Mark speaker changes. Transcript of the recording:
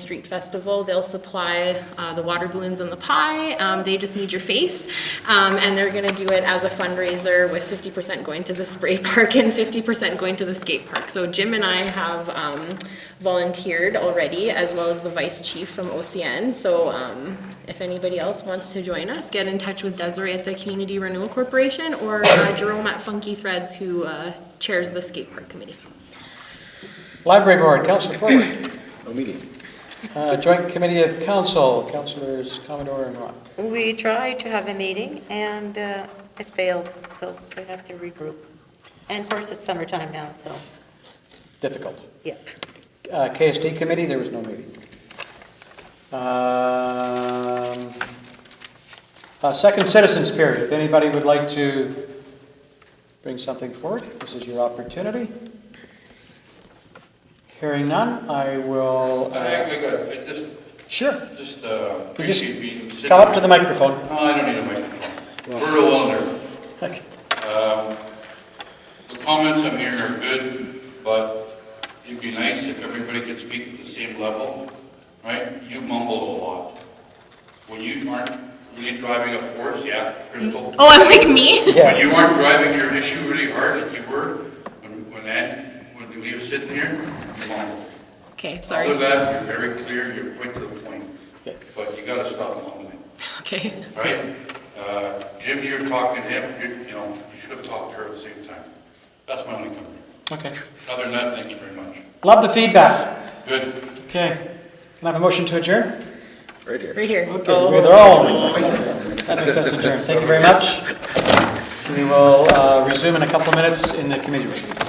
Speaker 1: Street Festival. They'll supply uh, the water balloons and the pie. Um, They just need your face. Um, And they're going to do it as a fundraiser with 50% going to the spray park and 50% going to the skate park. So Jim and I have um, volunteered already, as well as the vice chief from OCN. So um, if anybody else wants to join us, get in touch with Desiree at the Community Renewal Corporation or uh, Jerome at Funky Threads, who uh, chairs the skate park committee.
Speaker 2: Library Board, Councillor Forward.
Speaker 3: No meeting.
Speaker 2: Uh, Joint Committee of Council, Councillors Commodore and Rock.
Speaker 4: We tried to have a meeting, and uh, it failed, so we have to regroup. And of course, it's summertime now, so,
Speaker 2: Difficult.
Speaker 4: yep.
Speaker 2: Uh, KSD Committee, there was no meeting. Um, uh, Second Citizens Period, if anybody would like to bring something forward, this is your opportunity. Hearing none, I will,
Speaker 5: I
Speaker 2: uh,
Speaker 5: think we got, it just,
Speaker 2: sure,
Speaker 5: just, uh,
Speaker 2: Could you s-
Speaker 5: appreciate being sitting.
Speaker 2: come up to the microphone.
Speaker 5: No, I don't need a microphone. We're real well in there.
Speaker 2: Okay.
Speaker 5: Um, The comments I'm hearing are good, but it'd be nice if everybody could speak at the same level, right? You mumble a lot. When you aren't really driving a force, yeah, Crystal.
Speaker 1: Oh, I'm like me?
Speaker 2: Yeah.
Speaker 5: When you aren't driving your issue really hard as you were, when, when that, when we were sitting here, you mumble.
Speaker 1: Okay,
Speaker 5: Other than
Speaker 1: sorry.
Speaker 5: that, you're very clear, you're quick to the point,
Speaker 2: Okay.
Speaker 5: but you gotta stop mumbling,
Speaker 1: Okay.
Speaker 5: all right? Uh, Jim, you're talking to him, you, you know, you should have talked to her at the same time. That's my only comment.
Speaker 2: Okay.
Speaker 5: Other than that, thank you very much.
Speaker 2: Love the feedback.
Speaker 5: Good.
Speaker 2: Okay. Can I have a motion to adjourn?
Speaker 3: Right here.
Speaker 1: Right here.
Speaker 2: Okay, we're- they're all, that makes us adjourn. Thank you very much. We will uh, resume in a couple of minutes in the committee room.